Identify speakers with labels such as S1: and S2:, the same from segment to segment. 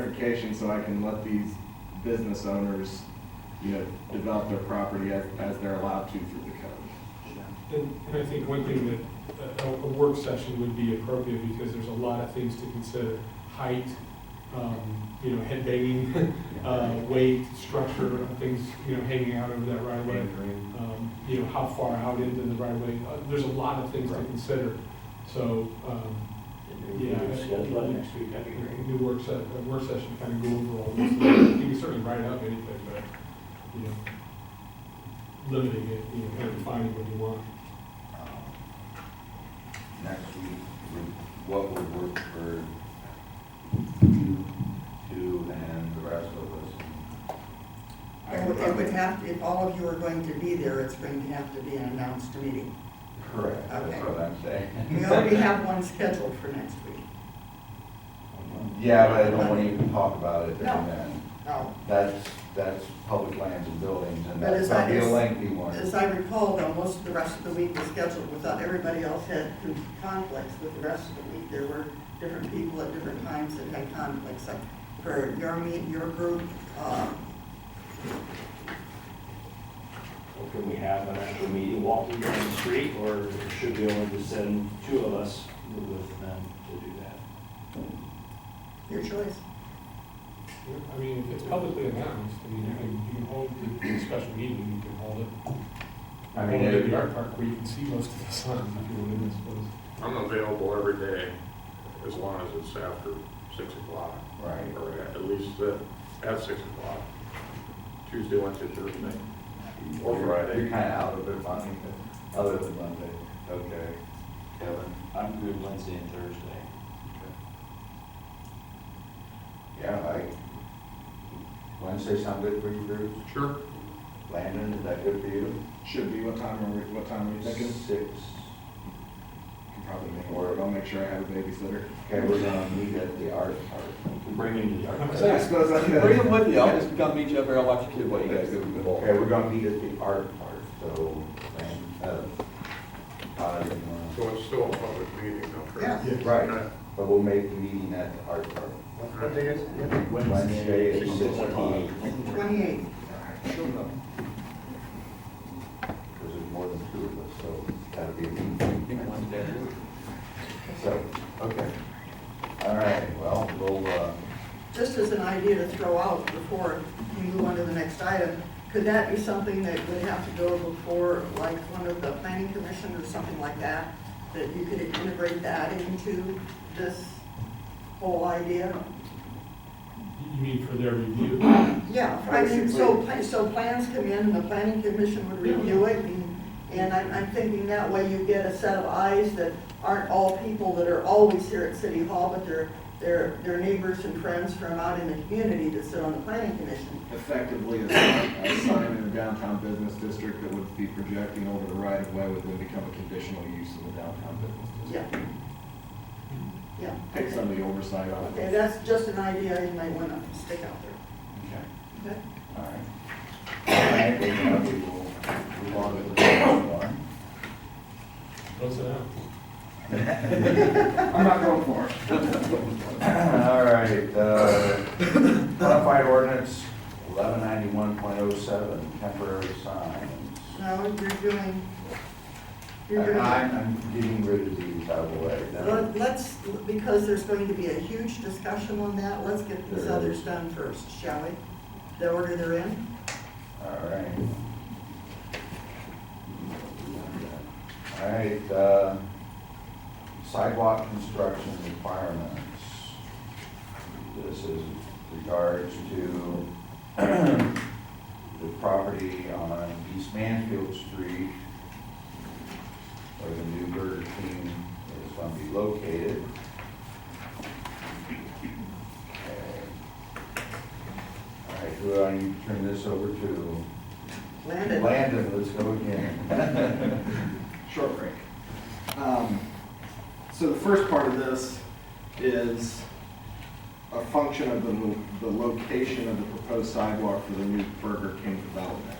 S1: clarification so I can let these business owners, you know, develop their property as, as they're allowed to through the code.
S2: And and I think one thing that, uh, a- a, a work session would be appropriate because there's a lot of things to consider. Height, um, you know, head banging, uh, weight, structure, things, you know, hanging out over that right of way. Um, you know, how far out into the right of way, uh, there's a lot of things to
S3: Right.
S2: consider. So, um, yeah, I think
S3: Schedule it
S2: we-
S3: next week, that'd be great.
S2: a new work se, a work session kind of go over all this. You can certainly write up anything, but, you know, limiting it, you know, kind of defining what you want.
S4: Next week, would- what would work for you two and the rest of us?
S5: It would- it would have, if all of you are going to be there, it's going to have to be an announced meeting.
S4: Correct. That's what I'm saying.
S5: We already have one scheduled for next week.
S4: Yeah, but I don't want to even talk about it
S5: No.
S4: during then.
S5: Now,
S4: That's, that's public lands and buildings, and
S5: But
S4: that's
S5: is that-
S4: probably a
S5: is-
S4: lengthy one.
S5: as I recall, though, most of the rest of the week was scheduled, without everybody else had conflicts with the rest of the week. There were different people at different times that had conflicts, like for your meet, your group, uh,
S3: Well, Can we have an actual meeting walking down the street, or should we only just send two of us with them to do that?
S5: your choice.
S2: Yeah, I mean, if it's publicly announced, I mean, you can, you can hold the special meeting, you can hold it.
S4: I mean,
S2: Hold it at
S4: it-
S2: the art park where you can see most of the signs if you want to, I suppose.
S6: I'm available every day as long as it's after six o'clock,
S4: Right.
S6: or at at least uh, at six o'clock, Tuesday, Wednesday, Thursday. Or Friday.
S4: You're kind of out of it, I mean, other than Monday. Okay. Kevin?
S3: I'm good Wednesday and Thursday.
S4: Yeah, I, Wednesday sound good for you, Bruce?
S6: Sure.
S4: Landon, is that good for you?
S1: Should be, what time are we, what time are you thinking?
S4: Six.
S1: Can probably make it work, I'll make sure I have a babysitter.
S4: Okay, we're gonna meet at the art park.
S3: We can bring him to the
S1: I
S3: yard.
S1: suppose I could-
S7: Bring them with you, I'll just come meet you up there, I'll watch your kid while you guys go to the ball.
S4: Okay, we're gonna meet at the art park, so, and, uh, Todd and, uh,
S6: So it's still a public meeting, no?
S5: Yeah.
S4: right, but we'll make the meeting at the art park.
S6: What day
S4: is it? Wednesday at
S3: Six
S4: six
S3: o'clock.
S4: o'clock.
S5: Twenty-eighth,
S4: Because there's more than two of us, so that'll be a meeting. So, okay. All right, well, we'll, uh,
S5: just as an idea to throw out before we move on to the next item, could that be something that would have to go before, like, one of the planning commission or something like that? That you could integrate that into this whole idea?
S2: You- You mean for their review?
S5: Yeah, I mean, so, pla- so plans come in and the planning commission would review it and, and I'm, I'm thinking that way you get a set of eyes that aren't all people that are always here at City Hall, but they're, they're, they're neighbors and friends from out in the community that sit on the planning commission.
S1: Effectively, a sign a sign in the downtown business district that would be projecting over the right of way would then become a conditional use in the downtown business
S5: Yeah,
S1: district.
S5: yeah.
S1: Take some of the oversight out of
S5: Okay,
S1: it.
S5: that's just an idea you might wanna stick out
S4: okay,
S5: there. Okay?
S4: all right. All right, well, now we will move on to the next one.
S2: Close it out.
S1: I'm not going for it.
S4: All right, uh, modified ordinance eleven ninety-one point oh seven, temporary signs.
S5: Now, you're doing, you're doing.
S4: And I'm, I'm getting rid of these out of the way.
S5: Let- Let's, because there's going to be a huge discussion on that, let's get these
S4: There
S5: others
S4: is.
S5: done first, shall we? The order they're in?
S4: All right. All right, uh, sidewalk construction requirements. This is regards to the property on East Mansfield Street where the new Burger King is going to be located. Okay. All right, who do I need to turn this over to?
S5: Landon?
S4: Landon, let's go again.
S1: short break. Um, So the first part of this is a function of the, lo- the location of the proposed sidewalk for the new Burger King development.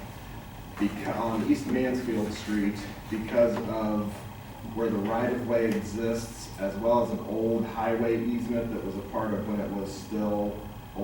S1: Beca- on East Mansfield Street, because of where the right-of-way exists, as well as an old highway easement that was a part of when it was still